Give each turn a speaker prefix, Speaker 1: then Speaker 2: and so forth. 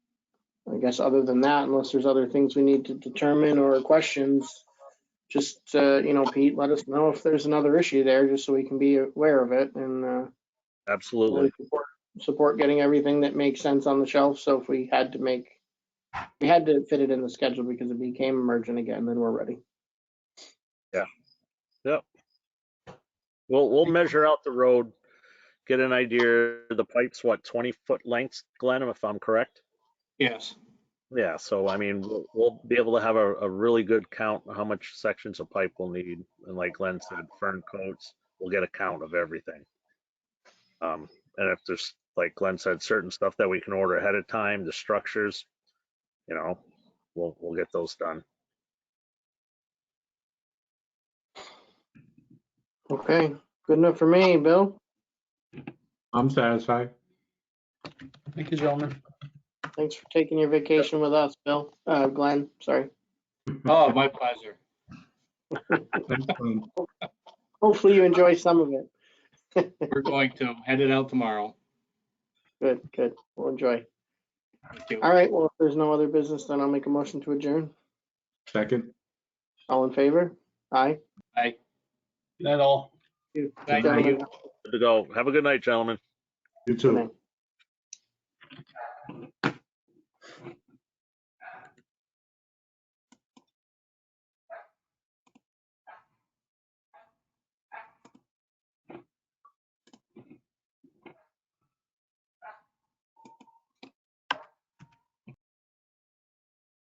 Speaker 1: I guess other than that, unless there's other things we need to determine or questions, just, uh, you know, Pete, let us know if there's another issue there, just so we can be aware of it and, uh,
Speaker 2: Absolutely.
Speaker 1: really support, support getting everything that makes sense on the shelf. So if we had to make, we had to fit it in the schedule because it became emergent again, then we're ready.
Speaker 2: We'll, we'll measure out the road, get an idea. The pipe's what, 20 foot lengths, Glenn, if I'm correct?
Speaker 1: Yes.
Speaker 2: Yeah, so I mean, we'll, we'll be able to have a, a really good count on how much sections of pipe we'll need. And like Glenn said, fern coats, we'll get a count of everything. Um, and if there's, like Glenn said, certain stuff that we can order ahead of time, the structures, you know, we'll, we'll get those done.
Speaker 1: Okay, good enough for me, Bill.
Speaker 3: I'm satisfied.
Speaker 4: Thank you, gentlemen.
Speaker 1: Thanks for taking your vacation with us, Bill, uh, Glenn, sorry.
Speaker 4: Oh, my pleasure.
Speaker 3: Excellent.
Speaker 1: Hopefully you enjoy some of it.
Speaker 4: We're going to head it out tomorrow.
Speaker 1: Good, good. We'll enjoy.
Speaker 4: Thank you.
Speaker 1: All right, well, if there's no other business, then I'll make a motion to adjourn.
Speaker 3: Second.
Speaker 1: All in favor? Aye.
Speaker 4: Bye. That all.
Speaker 1: You-
Speaker 4: Thank
Speaker 1: gentlemen.
Speaker 4: you.
Speaker 2: Good to go. Have a good night, gentlemen.
Speaker 3: You too.